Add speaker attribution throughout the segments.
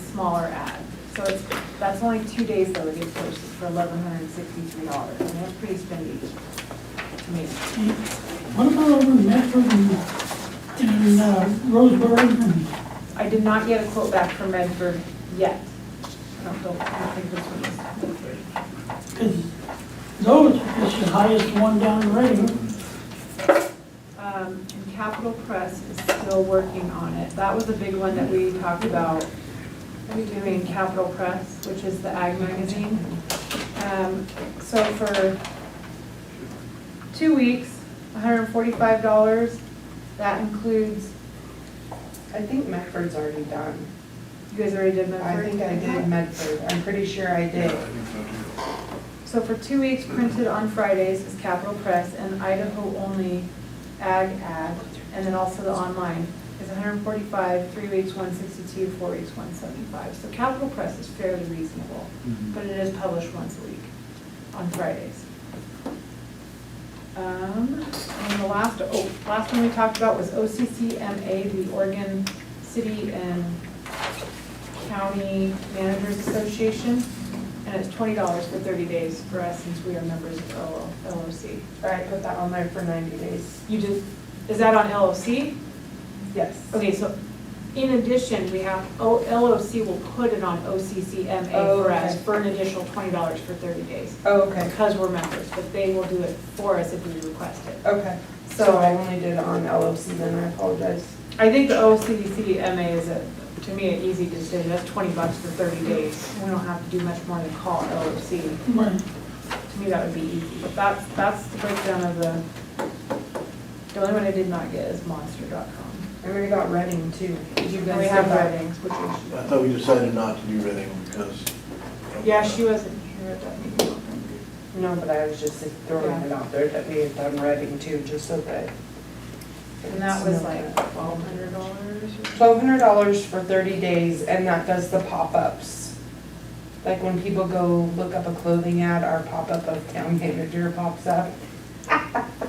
Speaker 1: smaller ad. So it's, that's only two days though it gets posted for eleven hundred and sixty-three dollars, and that's pretty spendy to me.
Speaker 2: What about over in Medford and, and uh, Roseburg and,
Speaker 1: I did not get a quote back from Medford yet. I don't know, I don't think this one is Medford.
Speaker 2: cause those, is the highest one down the road.
Speaker 1: Um, and Capital Press is still working on it. That was a big one that we talked about doing Capital Press, which is the ag magazine. Um, so for two weeks, hundred and forty-five dollars. That includes,
Speaker 3: I think Medford's already done.
Speaker 1: you guys already did
Speaker 3: I
Speaker 1: Medford?
Speaker 3: think I did Medford, I'm pretty sure I did.
Speaker 1: So for two weeks, printed on Fridays is Capital Press and Idaho only ag ad. And then also the online is 145, three weeks, 162, four weeks, 175. So Capital Press is fairly reasonable, but it is published once a week on Fridays. Um, And the last, oh, last one we talked about was OCCMA, the Oregon City and County Managers Association. And it's twenty dollars for thirty days for us since we are members of LO LOC.
Speaker 3: I put that on there for ninety days.
Speaker 1: You did, is that on LOC?
Speaker 3: Yes.
Speaker 1: Okay, so in addition, we have, O- LOC will put it on OCCMA for us
Speaker 3: Okay.
Speaker 1: for an additional twenty dollars for thirty days.
Speaker 3: Oh, okay,
Speaker 1: Because we're members, but they will do it for us if we request it.
Speaker 3: okay. So I only did it on LOC then, I apologize.
Speaker 1: I think the OCCMA is a, to me, an easy decision. That's twenty bucks for thirty days. We don't have to do much more than call LOC.
Speaker 2: Right.
Speaker 1: To me, that would be easy, but that's, that's the breakdown of the, the only one I did not get is monster.com.
Speaker 3: I already got Reading too. Did you
Speaker 1: And we
Speaker 3: guys
Speaker 1: have
Speaker 3: have that?
Speaker 1: Reddings, which we
Speaker 4: I thought we decided not to do Reading because.
Speaker 1: should, yeah, she wasn't here at that meeting.
Speaker 3: No, but I was just throwing it out there that we had done Reading too, just so that.
Speaker 1: And that was like twelve hundred dollars
Speaker 3: Twelve hundred dollars for thirty days, and that does the pop-ups. Like when people go look up a clothing ad, our pop-up of town manager pops up.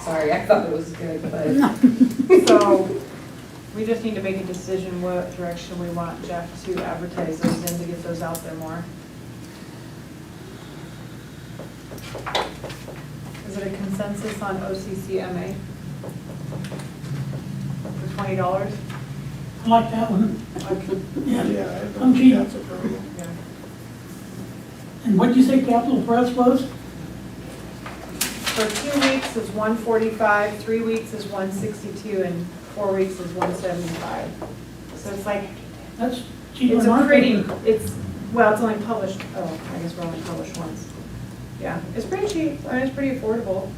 Speaker 3: Sorry, I thought it was good, but
Speaker 1: So, we just need to make a decision what direction we want Jeff to advertise those in to get those out there more. Is it a consensus on OCCMA? For twenty dollars?
Speaker 2: I like that one. Yeah.
Speaker 4: Yeah, I
Speaker 2: I'm
Speaker 4: don't
Speaker 2: cheap.
Speaker 4: think that's a problem.
Speaker 2: And what'd you say Capital Press was?
Speaker 1: For two weeks is one forty-five, three weeks is one sixty-two, and four weeks is one seventy-five. So it's like,
Speaker 2: That's cheaper
Speaker 1: it's
Speaker 2: than
Speaker 1: a
Speaker 2: our
Speaker 1: pretty,
Speaker 2: paper.
Speaker 1: it's, well, it's only published, oh, I guess we're only published once. Yeah, it's pretty cheap, I mean, it's pretty affordable.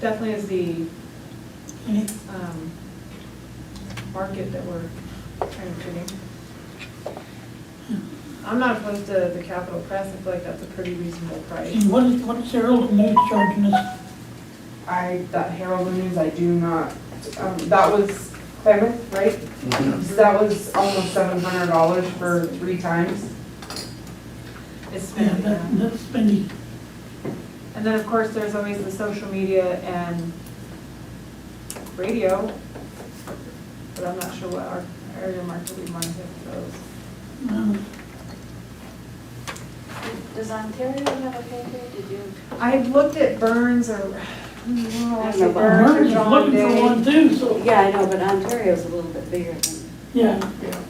Speaker 1: Definitely is the,
Speaker 2: And it-
Speaker 1: um, market that we're trying to create. I'm not opposed to the Capital Press, I feel like that's a pretty reasonable price.
Speaker 2: And what is, what's Harold News charging us?
Speaker 3: I, that Herald News, I do not, um, that was Plymouth, right? So That was almost seven hundred dollars for three times.
Speaker 1: It's
Speaker 2: Yeah,
Speaker 1: spending, uh, yeah.
Speaker 2: that, that's spending.
Speaker 1: And then, of course, there's always the social media and radio, but I'm not sure what our area market would mind if those.
Speaker 2: Uh,
Speaker 5: Does Ontario have a paper? Did you?
Speaker 1: I had looked at Burns or, no, I said Burns or
Speaker 2: Merton's
Speaker 1: John
Speaker 2: looking for
Speaker 1: Day.
Speaker 2: one too, so,
Speaker 5: Yeah, I know, but Ontario's a little bit bigger than,
Speaker 2: yeah.
Speaker 4: Yeah,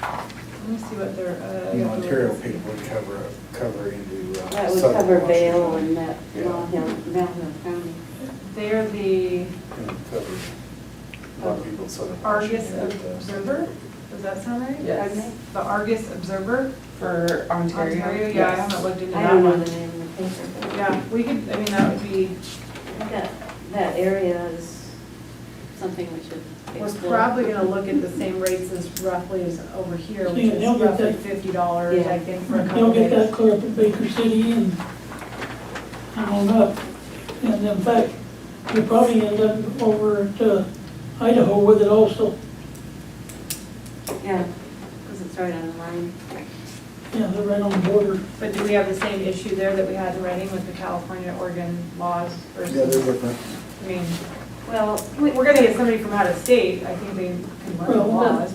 Speaker 1: Let me see what their, uh.
Speaker 4: the Ontario people would cover, cover into. uh,
Speaker 5: that would
Speaker 4: southern
Speaker 5: cover
Speaker 4: Washington.
Speaker 5: Vale and that,
Speaker 4: Yeah.
Speaker 5: Malham, Malham County.
Speaker 1: They're the
Speaker 4: It would cover A lot of people in southern.
Speaker 1: Argus
Speaker 4: Washington, but, uh,
Speaker 1: Observer, does that sound right?
Speaker 3: Yes.
Speaker 5: Pardon me?
Speaker 1: The Argus Observer,
Speaker 3: For Ontario.
Speaker 1: Ontario, yeah, I
Speaker 3: yes.
Speaker 1: haven't looked into
Speaker 5: I
Speaker 1: that
Speaker 5: don't know
Speaker 1: one.
Speaker 5: the name of the paper,
Speaker 1: Yeah, we could, I mean, that would be,
Speaker 5: but that, that area is something we should
Speaker 1: We're
Speaker 5: explore.
Speaker 1: probably gonna look at the same rates as roughly as over here, which
Speaker 2: Yeah,
Speaker 1: is
Speaker 2: they'll get
Speaker 1: roughly
Speaker 2: that.
Speaker 1: fifty dollars, I think, for a couple
Speaker 2: They'll get that
Speaker 1: days.
Speaker 2: clear up at Baker City and, and on up. And in fact, we probably end up over at uh, Idaho with it also.
Speaker 5: Yeah, because it's right on the line.
Speaker 2: Yeah, they're right on the border.
Speaker 1: But do we have the same issue there that we had in writing with the California, Oregon laws
Speaker 4: Yeah, they're
Speaker 1: versus,
Speaker 4: different.
Speaker 1: I mean,
Speaker 5: Well,
Speaker 1: we're gonna get somebody from out of state, I think they can learn the
Speaker 2: Well,
Speaker 1: laws.